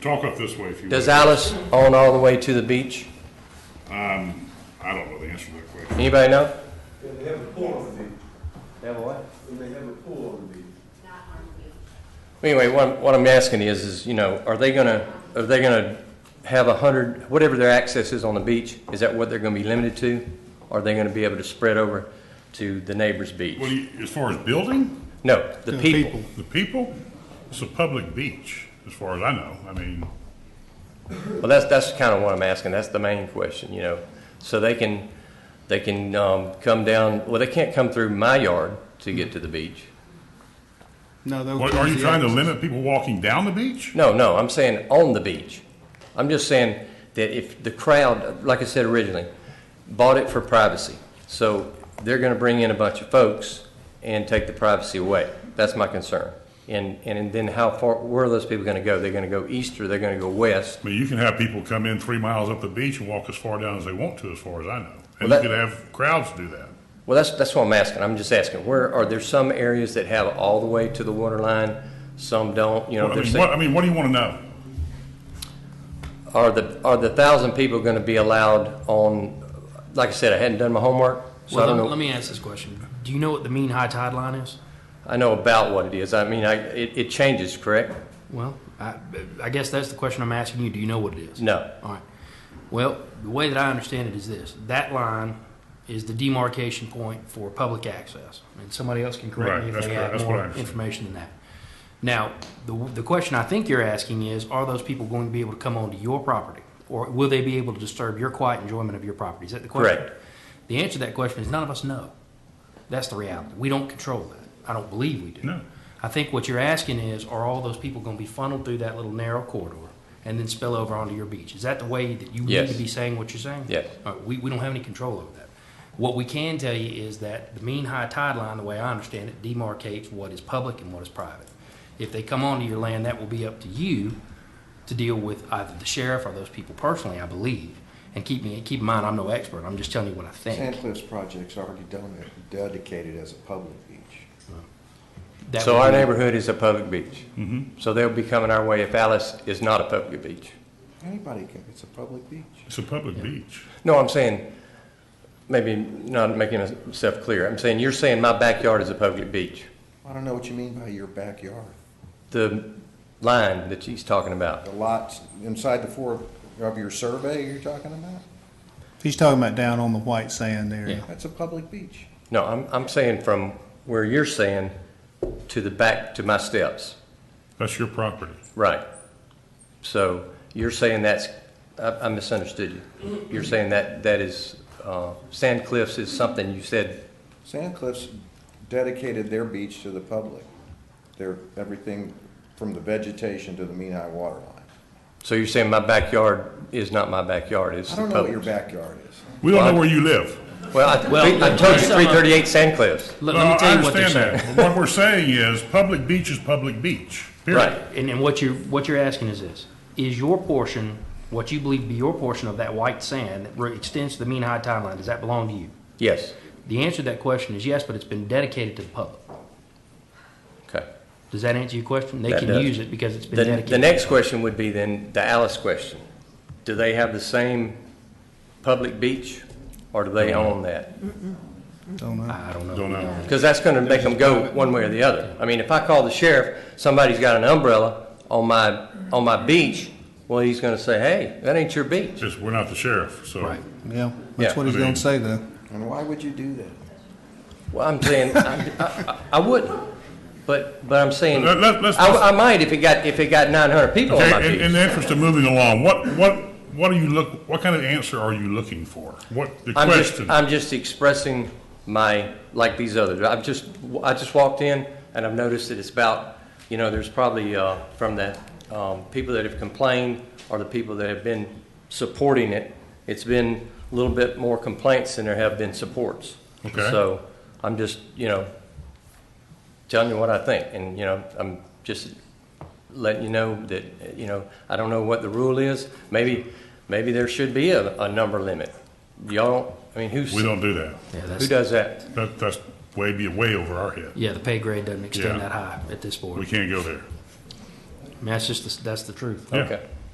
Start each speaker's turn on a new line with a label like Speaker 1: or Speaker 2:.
Speaker 1: Talk up this way if you
Speaker 2: Does
Speaker 1: will.
Speaker 2: Alice own all the way to the beach?
Speaker 1: I don't know the answer to that question.
Speaker 2: Anybody know?
Speaker 3: Yeah, they have a pool on the beach,
Speaker 2: They have what?
Speaker 3: and they have a pool on the beach.
Speaker 2: Anyway, what, what I'm asking is, is, you know, are they gonna, are they gonna have a hundred, whatever their access is on the beach, is that what they're gonna be limited to? Are they gonna be able to spread over to the neighbor's
Speaker 1: What
Speaker 2: beach?
Speaker 1: do you, as far as building,
Speaker 2: No, the people.
Speaker 1: the people, it's a public beach, as far as I know. I mean,
Speaker 2: Well, that's, that's kind of what I'm asking, that's the main question, you know? So they can, they can, um, come down, well, they can't come through my yard to get to the beach.
Speaker 4: No, they'll
Speaker 1: what,
Speaker 4: close
Speaker 1: are you
Speaker 4: the
Speaker 1: trying to
Speaker 4: access.
Speaker 1: limit people walking down the beach?
Speaker 2: No, no, I'm saying on the beach. I'm just saying that if the crowd, like I said originally, bought it for privacy. So they're gonna bring in a bunch of folks and take the privacy away. That's my concern. And, and then how far, where are those people gonna go? They're gonna go east or they're gonna go west?
Speaker 1: I mean, you can have people come in three miles up the beach and walk as far down as they want to, as far as I know. And
Speaker 2: Well,
Speaker 1: you
Speaker 2: that-
Speaker 1: could have crowds do that.
Speaker 2: Well, that's, that's what I'm asking. I'm just asking, where, are there some areas that have all the way to the water line? Some don't, you know,
Speaker 1: Well, I
Speaker 2: they're
Speaker 1: mean,
Speaker 2: saying.
Speaker 1: what, I mean, what do you want to know?
Speaker 2: Are the, are the thousand people gonna be allowed on, like I said, I hadn't done my homework, so I
Speaker 5: Well,
Speaker 2: don't know.
Speaker 5: let, let me ask this question. Do you know what the mean high tide line is?
Speaker 2: I know about what it is. I mean, I, it, it changes, correct?
Speaker 5: Well, I, I guess that's the question I'm asking you. Do you know what it is?
Speaker 2: No.
Speaker 5: All right. Well, the way that I understand it is this that line is the demarcation point for public access. And somebody else can correct
Speaker 1: Right,
Speaker 5: me if
Speaker 1: that's
Speaker 5: they
Speaker 1: correct.
Speaker 5: have
Speaker 1: That's what I
Speaker 5: more
Speaker 1: understand.
Speaker 5: information than that. Now, the, the question I think you're asking is are those people going to be able to come onto your property? Or will they be able to disturb your quiet enjoyment of your property? Is that the question?
Speaker 2: Correct.
Speaker 5: The answer to that question is none of us know. That's the reality. We don't control that. I don't believe we do.
Speaker 1: No.
Speaker 5: I think what you're asking is, are all those people going to be funneled through that little narrow corridor and then spill over onto your beach? Is that the way that you
Speaker 2: Yes.
Speaker 5: need to be saying what you're saying?
Speaker 2: Yes.
Speaker 5: All right, we, we don't have any control over that. What we can tell you is that the mean high tide line, the way I understand it, demarcates what is public and what is private. If they come onto your land, that will be up to you to deal with either the sheriff or those people personally, I believe. And keep me keep in mind, I'm no expert. I'm just telling you what I think.
Speaker 6: Sand Cliffs project's already done it, dedicated as a public beach.
Speaker 5: That
Speaker 2: So
Speaker 5: would
Speaker 2: our
Speaker 5: be-
Speaker 2: neighborhood is a public beach. Mm-hmm. So they'll be coming our way if Alice is not a public beach.
Speaker 6: Anybody can, it's a public beach.
Speaker 1: It's a public beach.
Speaker 2: No, I'm saying, maybe not making myself clear. I'm saying, you're saying my backyard is a public beach.
Speaker 6: I don't know what you mean by your backyard.
Speaker 2: The line that she's talking about.
Speaker 6: The lots inside the four of your survey you're talking about?
Speaker 4: He's talking about down on the white sand area.
Speaker 6: That's a public beach.
Speaker 2: No, I'm, I'm saying from where you're saying to the back, to my steps.
Speaker 1: That's your property.
Speaker 2: Right. So you're saying that's, I I misunderstood you. You're saying that, that is, uh, Sand Cliffs is something you said,
Speaker 6: Sand Cliffs dedicated their beach to the public. Their, everything from the vegetation to the mean high water line.
Speaker 2: so you're saying my backyard is not my backyard, it's
Speaker 6: I
Speaker 2: the
Speaker 6: don't know what your
Speaker 2: public.
Speaker 6: backyard is.
Speaker 1: We don't know
Speaker 2: Well,
Speaker 1: where you live.
Speaker 2: Well, uh, I,
Speaker 5: Well,
Speaker 2: I told
Speaker 5: let
Speaker 2: you
Speaker 5: me sum up.
Speaker 2: three thirty-eight Sand Cliffs.
Speaker 5: Let,
Speaker 1: No,
Speaker 5: let me tell you what
Speaker 1: I
Speaker 5: they're saying.
Speaker 1: understand that. But What we're saying is, public beach is public beach, period.
Speaker 2: Right.
Speaker 5: And, and what you're, what you're asking is this, is your portion, what you believe to be your portion of that white sand that re- extends to the mean high tide line, does that belong to you?
Speaker 2: Yes,
Speaker 5: The answer to that question is yes, but it's been dedicated to the public.
Speaker 2: okay.
Speaker 5: Does that answer your question? They
Speaker 2: That
Speaker 5: can
Speaker 2: does.
Speaker 5: use it because it's been
Speaker 2: The,
Speaker 5: dedicated.
Speaker 2: the next question would be then the Alice question. Do they have the same public beach or do they own that?
Speaker 4: Don't know.
Speaker 5: I don't know.
Speaker 1: Don't know.
Speaker 2: Because that's going to make them go one way or the other. I mean, if I call the sheriff, somebody's got an umbrella on my, on my beach, well, he's going to say, hey, that ain't your beach.
Speaker 1: Just, we're not the sheriff, so.
Speaker 5: Right.
Speaker 4: Yeah, that's
Speaker 2: Yeah.
Speaker 4: what he's
Speaker 1: I mean-
Speaker 4: gonna say though.
Speaker 6: And why would you do that?
Speaker 2: Well, I'm saying, I, I- I wouldn't, but, but I'm saying,
Speaker 1: Let- let- let's-
Speaker 2: I, I might if it got, if it got 900 people on Oh, my
Speaker 1: Okay, in, in
Speaker 2: beach.
Speaker 1: the interest of moving along, what, what, what are you look, what kind of answer are you looking for? What, the
Speaker 2: I'm just,
Speaker 1: question?
Speaker 2: I'm just expressing my, like these others. I've just, I just walked in and I've noticed that it's about, you know, there's probably, uh, from the, um, people that have complained or the people that have been supporting it, it's been a little bit more complaints than there have been supports.
Speaker 1: Okay.
Speaker 2: So I'm just, you know, telling you what I think and, you know, I'm just letting you know that, you know, I don't know what the rule is. Maybe, maybe there should be a, a number limit. Y'all, don't- I mean, who's,
Speaker 1: We
Speaker 2: who
Speaker 1: don't do that.
Speaker 5: Yeah, that's,
Speaker 2: does that?
Speaker 1: That, that's way, be way over our head.
Speaker 5: yeah, the pay grade doesn't
Speaker 1: Yeah.
Speaker 5: extend that high at this
Speaker 1: We
Speaker 5: board.
Speaker 1: can't go there.
Speaker 7: I mean, That's just, the- that's the truth.
Speaker 5: Yeah.
Speaker 2: Okay.